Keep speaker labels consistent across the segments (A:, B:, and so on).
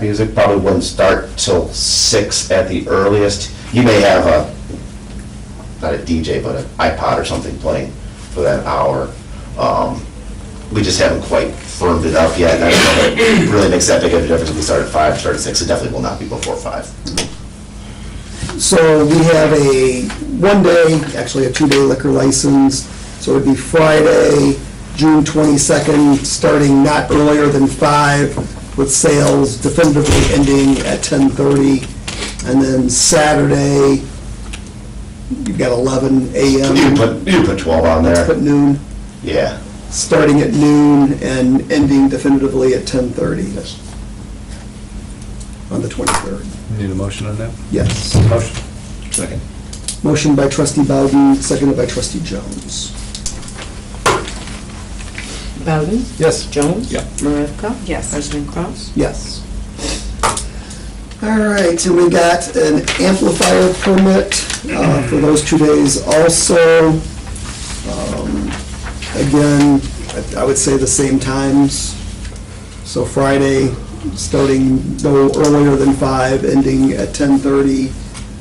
A: Music probably wouldn't start till six at the earliest. You may have a, not a DJ, but an iPod or something playing for that hour. Um, We just haven't quite firmed it up yet. and I don't know if it really makes that big of a difference if we start at five, start at six. It definitely will not be before five.
B: So we have a one-day, actually a two-day liquor license. So it'd be Friday, June 22nd, starting not earlier than five, with sales definitively ending at 10:30. And then Saturday, you've got 11
A: You can
B: a.m.
A: put, you can put twelve on
B: Let's
A: there.
B: put noon,
A: Yeah.
B: starting at noon and ending definitively at 10:30
A: Yes.
B: on the 23rd.
C: Need a motion on that?
B: Yes.
C: Motion.
A: Second.
B: Motion by trustee Bowden, seconded by trustee Jones.
D: Bowden?
C: Yes.
D: Jones?
C: Yeah.
D: Maravka?
E: Yes.
D: President Kraus?
B: Yes. All right, so we got an amplifier permit uh, for those two days also. Um, Again, I- I would say the same times. So Friday, starting no earlier than five, ending at 10:30,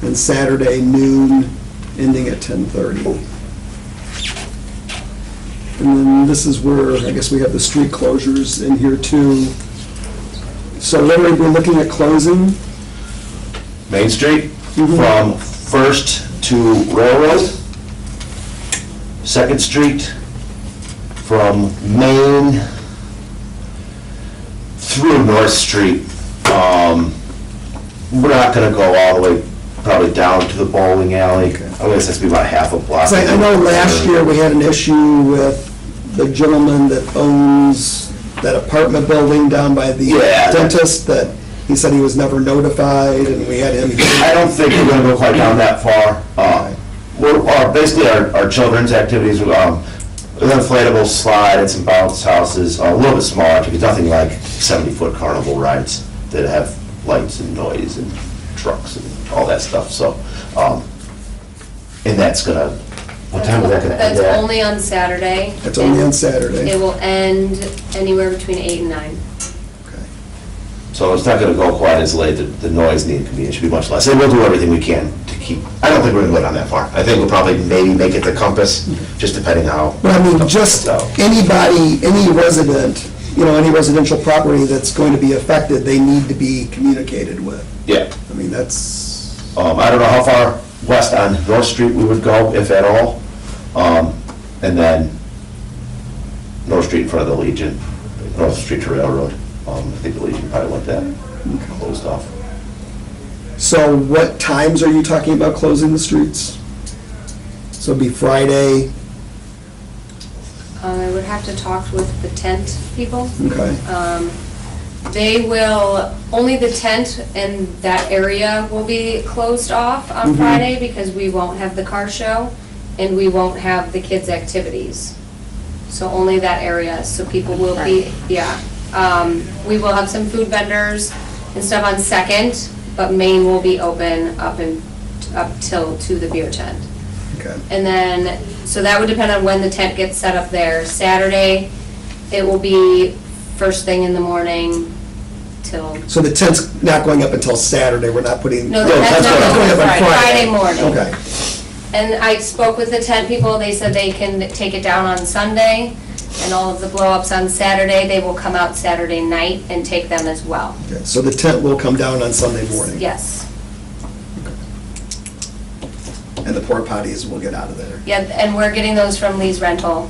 B: and Saturday noon, ending at 10:30. And then this is where, I guess we have the street closures in here too. So literally, we're looking at closing.
A: Main Street from First to Railroad. Second Street from Main through North Street. Um, We're not gonna go all the way, probably down to the bowling alley. I guess that's be about half a block.
B: 'Cause I I know last year, we had an issue with the gentleman that owns that apartment building down by the
A: Yeah.
B: dentist, that he said he was never notified, and we had him,
A: I don't think we're gonna go quite down that far. Uh, We're, our- basically, our, our children's activities, um, an inflatable slide and some bounce houses, a little bit smaller, because nothing like seventy-foot carnival rides that have lights and noise and trucks and all that stuff, so, um, and that's gonna, what time is that gonna end
F: That's
A: at?
F: only on Saturday.
B: it's only on Saturday.
F: It will end anywhere between eight and nine.
A: So it's not gonna go quite as late, the, the noise and the inconvenience should be much less, and we'll do everything we can to keep, I don't think we're gonna go down that far. I think we'll probably maybe make it the compass, just depending how.
B: But I mean, just
A: So-
B: anybody, any resident, you know, any residential property that's going to be affected, they need to be communicated with.
A: Yeah,
B: I mean, that's,
A: um, I don't know how far west on North Street we would go, if at all. Um, and then North Street in front of the Legion, North Street to Railroad. Um, I think the Legion probably went that closed off.
B: so what times are you talking about closing the streets? So it'd be Friday,
F: Uh, I would have to talk with the tent people.
B: okay?
F: Um, They will, only the tent and that area will be closed off on
B: Mhm.
F: Friday because we won't have the car show and we won't have the kids' activities. So only that area, so people will be, yeah. Um, We will have some food vendors and stuff on Second, but Main will be open up and, up till, to the beer tent.
B: Okay.
F: And then, so that would depend on when the tent gets set up there. Saturday, it will be first thing in the morning till,
B: So the tent's not going up until Saturday, we're not putting.
F: no, the tent's not
B: going up on
F: Friday morning.
B: Okay,
F: And I spoke with the tent people, they said they can take it down on Sunday, and all of the blow-ups on Saturday, they will come out Saturday night and take them as well.
B: okay, so the tent will come down on Sunday morning.
F: Yes.
B: And the porta potties will get out of there.
F: Yeah, and we're getting those from Lee's rental,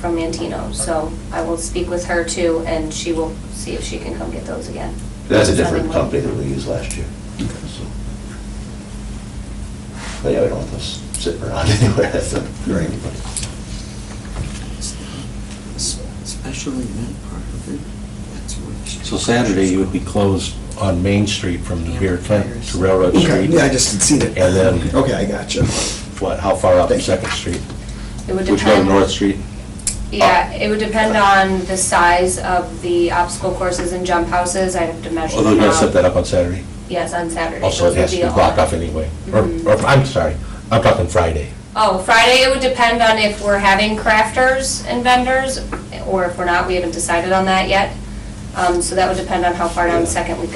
F: from Mantino, so I will speak with her too, and she will see if she can come get those again.
A: That's a different
F: Sunday
A: company
F: morning.
A: that we used last year. so. But yeah, we don't want those sitting around anywhere, that's a.
B: Right.
D: Special event part of it, that's what.
G: So Saturday, you would be closed on Main Street from the beer tent to Railroad
B: Okay,
G: Street?
B: yeah, I just seen it.
G: And then-
B: Okay, I got you.
G: What, how far up
B: Thank you.
G: Second Street?
F: It would
G: Would you go to
F: depend.
G: North Street?
F: Yeah, it would depend on the size of the obstacle courses and jump houses. I'd have to measure
G: Although
F: them
G: you gotta Oh, set
F: out.
G: that up on Saturday.
F: Yes, on Saturday.
G: Also,
F: Those
G: it
F: would
G: has to
F: be
G: be
F: all-
G: blocked off anyway. Or, or, I'm sorry, I'm talking Friday.
F: Oh, Friday, it would depend on if we're having crafters and vendors, or if we're not, we haven't decided on that yet. Um, So that would depend on how far down Second we go.